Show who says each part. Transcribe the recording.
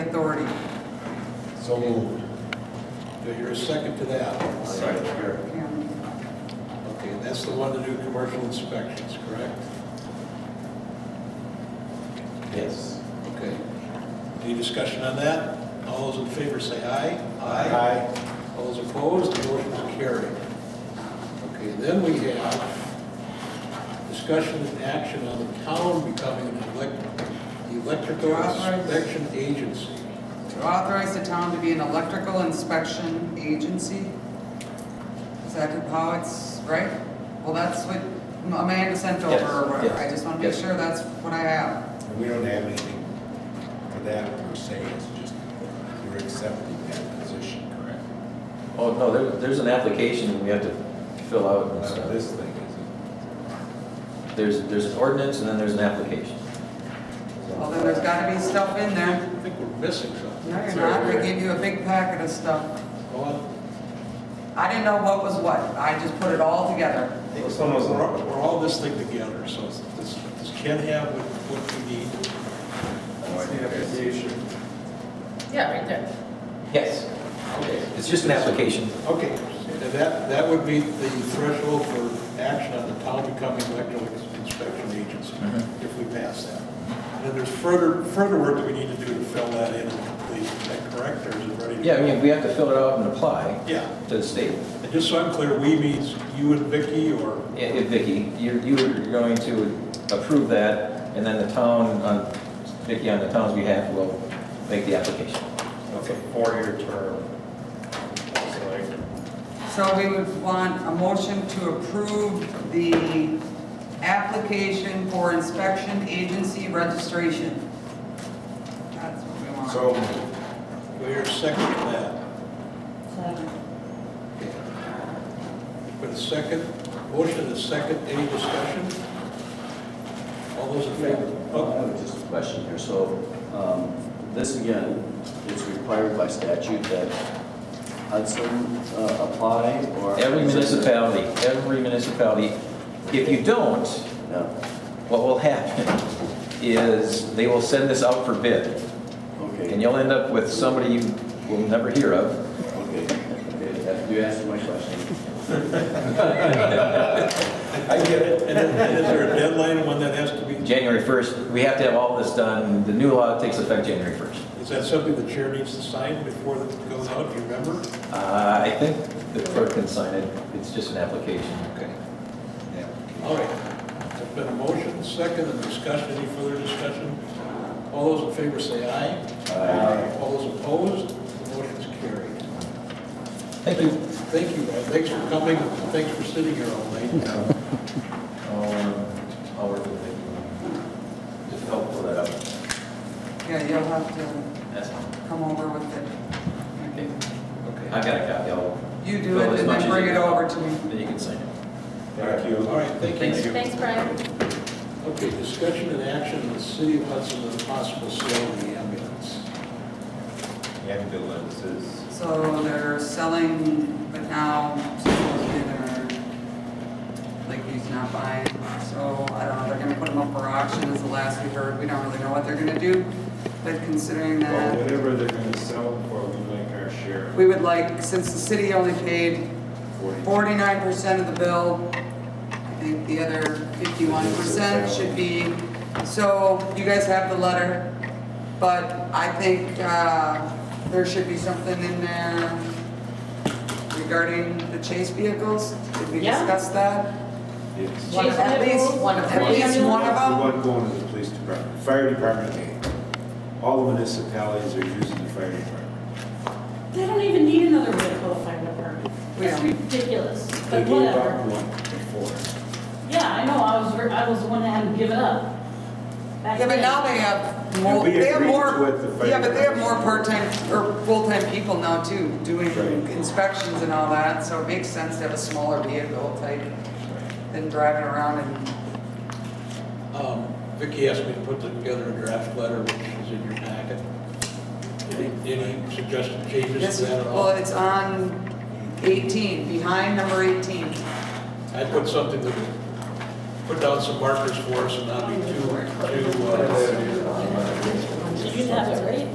Speaker 1: So moved. Do I hear a second to that?
Speaker 2: Second.
Speaker 1: Okay, and that's the one to do commercial inspections, correct?
Speaker 2: Yes.
Speaker 1: Okay. Any discussion on that? All those in favor say aye. All those opposed, the motion is carried. Okay, then we have discussion and action on the town becoming an elec- electrical
Speaker 3: Authorized.
Speaker 1: inspection agency.
Speaker 3: To authorize the town to be an electrical inspection agency? Is that how it's, right? Well, that's what Amanda sent over or whatever. I just want to make
Speaker 2: Yes, yes.
Speaker 3: sure that's what I have.
Speaker 4: And we don't have anything for that per se, it's just you're accepting that position, correct?
Speaker 2: Oh, no, there, there's an application we have to fill out and
Speaker 4: Now,
Speaker 2: stuff.
Speaker 4: this thing is,
Speaker 2: There's, there's an ordinance and then there's an application.
Speaker 3: Well, then there's got to be stuff in there.
Speaker 1: I think we're missing something.
Speaker 3: No, you're not. They gave you a big packet of stuff.
Speaker 1: Well,
Speaker 3: I didn't know what was what. I just put it all together.
Speaker 1: We're all- we're all this thing together, so this this can have what- what we need.
Speaker 5: Yeah, right there.
Speaker 2: Yes,
Speaker 1: Okay.
Speaker 2: it's just an application.
Speaker 1: Okay, and that, that would be the threshold for action on the town becoming electrical inspection agency,
Speaker 2: Mm-hmm.
Speaker 1: if we pass that. And then there's further, further work that we need to do to fill that in, and complete. is that correct, or is it ready? to-
Speaker 2: Yeah, I mean, we have to fill it out and apply
Speaker 1: Yeah,
Speaker 2: to the state.
Speaker 1: and just so I'm clear, we means you and Vicky, or,
Speaker 2: Yeah, yeah, Vicky, you're, you're going to approve that, and then the town, on, Vicky, on the town's behalf, will make the application.
Speaker 6: It's a four-year term. So like,
Speaker 3: So we would want a motion to approve the application for inspection agency registration. That's what we want.
Speaker 4: so moved.
Speaker 1: we're second to that. Okay. Put a second, motion and a second, any discussion? All those in favor?
Speaker 7: I
Speaker 1: Oh,
Speaker 7: have just a question here. So um, this again, it's required by statute that Hudson uh, apply or?
Speaker 2: Every municipality, every municipality, if you don't,
Speaker 7: Yeah,
Speaker 2: what will happen is they will send this out for bid,
Speaker 7: okay.
Speaker 2: and you'll end up with somebody you will never hear of.
Speaker 7: Okay, okay, that- you answered my question.
Speaker 1: I get it. And then- and is there a deadline when that has to be?
Speaker 2: January 1st, we have to have all this done, the new law takes effect January 1st.
Speaker 1: Is that something the chair needs to sign before it goes out, do you remember?
Speaker 2: Uh, I think the clerk can sign it, it's just an application.
Speaker 1: Okay. All right, there's been a motion, second, and discussion, any further discussion? All those in favor say aye. Aye. All those opposed, the motion's carried.
Speaker 2: Thank you.
Speaker 1: Thank you, guys. thanks for coming, thanks for sitting here all night.
Speaker 2: Um, I'll work with it. Just help pull that up.
Speaker 3: Yeah, you'll have to
Speaker 2: That's all.
Speaker 3: come over with it.
Speaker 2: Okay. I've got a copy, I'll.
Speaker 3: You do
Speaker 2: fill
Speaker 3: it
Speaker 2: as
Speaker 3: and
Speaker 2: much as
Speaker 3: then
Speaker 2: you
Speaker 3: bring it
Speaker 2: can.
Speaker 3: over to me.
Speaker 2: Then you can sign it.
Speaker 4: Thank you.
Speaker 1: All right, thank you.
Speaker 5: Thanks, Brian.
Speaker 1: Okay, discussion and action in the city of Hudson on the possible sale of the ambulance.
Speaker 4: Ambulances,
Speaker 3: So they're selling, but now supposedly they're, like, he's not buying. So I don't know, they're gonna put them up for auction is the last we heard. We don't really know what they're gonna do. But considering
Speaker 6: well,
Speaker 3: that,
Speaker 6: whatever they're gonna sell them for, we like our share.
Speaker 3: we would like, since the city only paid forty-nine percent of the bill, I think the other fifty-one percent should be, so you guys have the letter, but I think, uh, there should be something in there regarding the chase vehicles, did we
Speaker 5: Yeah.
Speaker 3: discuss that?
Speaker 4: yes.
Speaker 5: Chase
Speaker 3: At least-
Speaker 5: vehicles, one of
Speaker 3: At
Speaker 5: them.
Speaker 3: least one of
Speaker 4: The
Speaker 3: them?
Speaker 4: one going to the police department, fire department, eh, all the municipalities are using the fire department.
Speaker 8: They don't even need another vehicle to find a apartment. It's
Speaker 3: Yeah.
Speaker 8: ridiculous,
Speaker 4: They
Speaker 8: but
Speaker 4: gave up
Speaker 8: whatever.
Speaker 4: one before.
Speaker 8: Yeah, I know, I was, ver- I was the one that had to give it up. back
Speaker 3: Yeah, but
Speaker 8: then.
Speaker 3: now they have
Speaker 4: And
Speaker 3: more,
Speaker 4: we
Speaker 3: they have
Speaker 4: agreed
Speaker 3: more,
Speaker 4: with the fire
Speaker 3: yeah, but they have more
Speaker 4: department.
Speaker 3: part-time or full-time people now too, doing
Speaker 4: Right.
Speaker 3: inspections and all that, so it makes sense to have a smaller vehicle type than driving around and,
Speaker 1: Um, Vicki asked me to put together a draft letter, which is in your packet. Any any suggested changes
Speaker 3: this
Speaker 1: to
Speaker 3: is,
Speaker 1: that at
Speaker 3: well,
Speaker 1: all?
Speaker 3: it's on eighteen, behind number eighteen.
Speaker 1: I put something that, would put down some markers for us and not be too, too, uh,
Speaker 8: Did you have it